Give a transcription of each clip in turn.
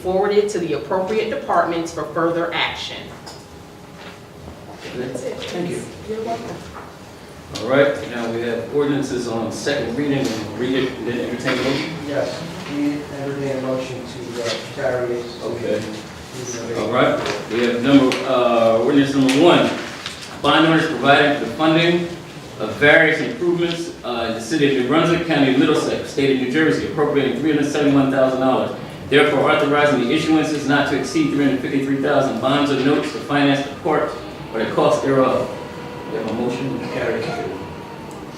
forwarded to the appropriate departments for further action. That's it. Thank you. You're welcome. All right, now we have ordinances on second reading, and we'll read it, and then entertain a motion. Yes, we entertain a motion to uh, carry it. Okay. All right, we have number, uh, ordinance number one, bond orders providing for the funding of various improvements, uh, in the city of New Brunswick, county of Middlesex, state of New Jersey, appropriating three hundred seventy-one thousand dollars. Therefore authorizing the issuances not to exceed three hundred fifty-three thousand bonds or notes to finance the court or the cost thereof. We have a motion to carry to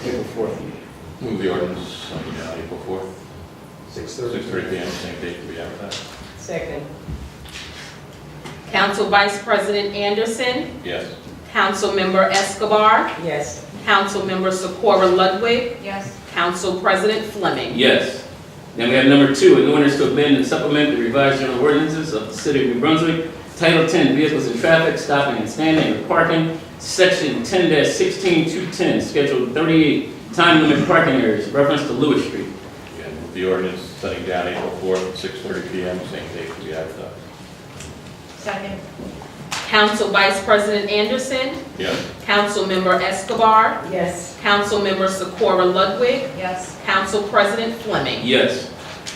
April fourth meeting. Move the ordinance on uh, April 4th, 6:30 PM, same date to be advertised. Second. Council Vice President Anderson, Yes. Councilmember Escobar, Yes. Councilmember Socorro Ludwig, Yes. Council President Fleming. Yes. Then we have number two, an ordinance to amend and supplement the revised general ordinances of the city of New Brunswick, Title 10, Vehicles and Traffic, Stopping and Standing and Parking, Section 10-16210, Schedule 38, Time Limit Parking Areas, reference to Lewis Street. Again, move the ordinance setting down April 4th, 6:30 PM, same date to be advertised. Second. Council Vice President Anderson, Yes. Councilmember Escobar, Yes. Councilmember Socorro Ludwig, Yes. Council President Fleming. Yes.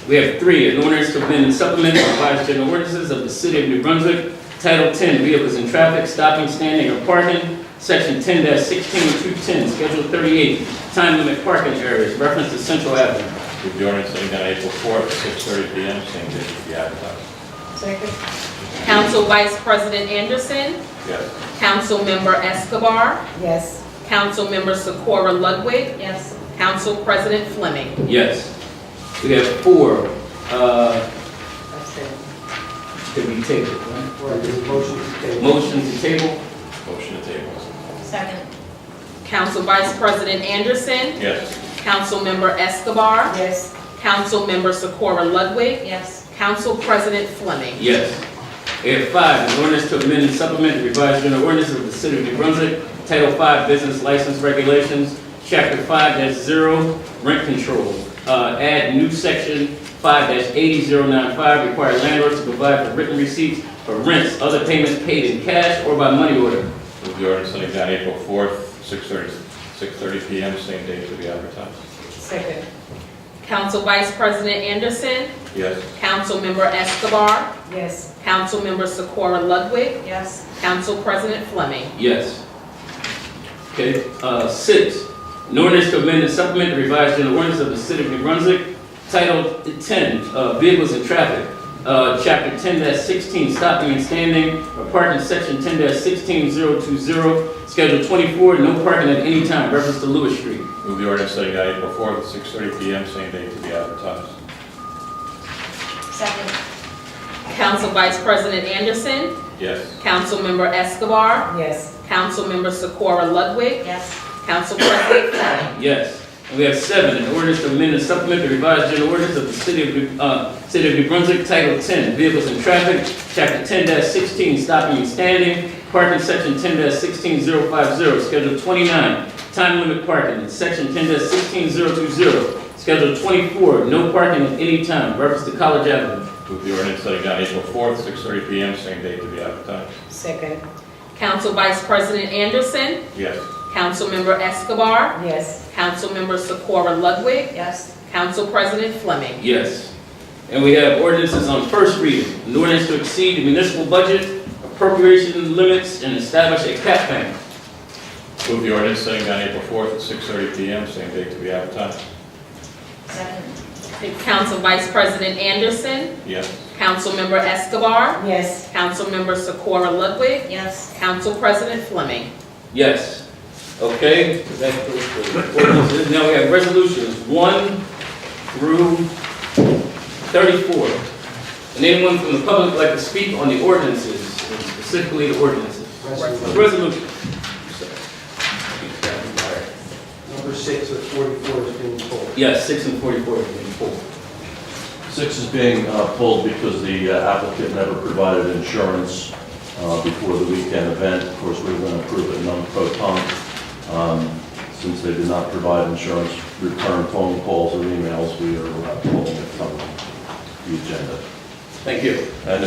We have three, an ordinance to amend and supplement the revised general ordinances of the city of New Brunswick, Title 10, Vehicles and Traffic, Stopping, Standing, or Parking, Section 10-16210, Schedule 38, Time Limit Parking Areas, reference to Central Avenue. Move the ordinance setting down April 4th, 6:30 PM, same date to be advertised. Second. Council Vice President Anderson, Yes. Councilmember Escobar, Yes. Councilmember Socorro Ludwig, Yes. Council President Fleming. Yes. We have four, uh, Abstain. to be tabled, right? Right, there's a motion to table. Motion to table? Motion to table. Second. Council Vice President Anderson, Yes. Councilmember Escobar, Yes. Councilmember Socorro Ludwig, Yes. Council President Fleming. Yes. We have five, an ordinance to amend and supplement the revised general ordinance of the city of New Brunswick, Title Five Business License Regulations, Chapter Five zero, rent control. Uh, add new section five eighty zero nine five, require landlords to provide for written receipts for rents, other payments paid in cash or by money order. Move the ordinance setting down April 4th, 6:30 6:30 PM, same date to be advertised. Second. Council Vice President Anderson, Yes. Councilmember Escobar, Yes. Councilmember Socorro Ludwig, Yes. Council President Fleming. Yes. Okay, uh, six, an ordinance to amend and supplement the revised general ordinance of the city of New Brunswick, Title ten, uh, vehicles and traffic, uh, chapter ten sixteen, stopping and standing, or parking, section ten sixteen zero two zero, schedule twenty-four, no parking at any time, reference to Lewis Street. Move the ordinance setting down April 4th, 6:30 PM, same date to be advertised. Second. Council Vice President Anderson, Yes. Councilmember Escobar, Yes. Councilmember Socorro Ludwig, Yes. Council President Fleming. Yes. And we have seven, an ordinance to amend and supplement the revised general ordinance of the city of, New- uh, city of New Brunswick, Title ten, Vehicles and Traffic, Chapter ten sixteen, Stopping and Standing, Parking, Section ten sixteen zero five zero, Schedule twenty-nine, Time Limit Parking, and Section ten sixteen zero two zero, Schedule twenty-four, No Parking at any time, reference to College Avenue. Move the ordinance setting down April 4th, 6:30 PM, same date to be advertised. Second. Council Vice President Anderson, Yes. Councilmember Escobar, Yes. Councilmember Socorro Ludwig, Yes. Council President Fleming. Yes. And we have ordinances on first reading, an ordinance to exceed the municipal budget, appropriation limits, and establish a cap bank. Move the ordinance setting down April 4th at 6:30 PM, same date to be advertised. Second. Council Vice President Anderson, Yes. Councilmember Escobar, Yes. Councilmember Socorro Ludwig, Yes. Council President Fleming. Yes. Okay, that goes for ordinances. Now we have resolutions one through thirty-four. And anyone from the public like to speak on the ordinances, specifically the ordinances? Resolution Resolution. Number six of forty-four is being pulled. Yes, six and forty-four. Four. Six is being uh, pulled because the uh, applicant never provided insurance uh, before the weekend event. Of course, we were going to approve it non-proton. Since they did not provide insurance, return phone calls or emails, we are uh, pulling it from the agenda. Thank you. And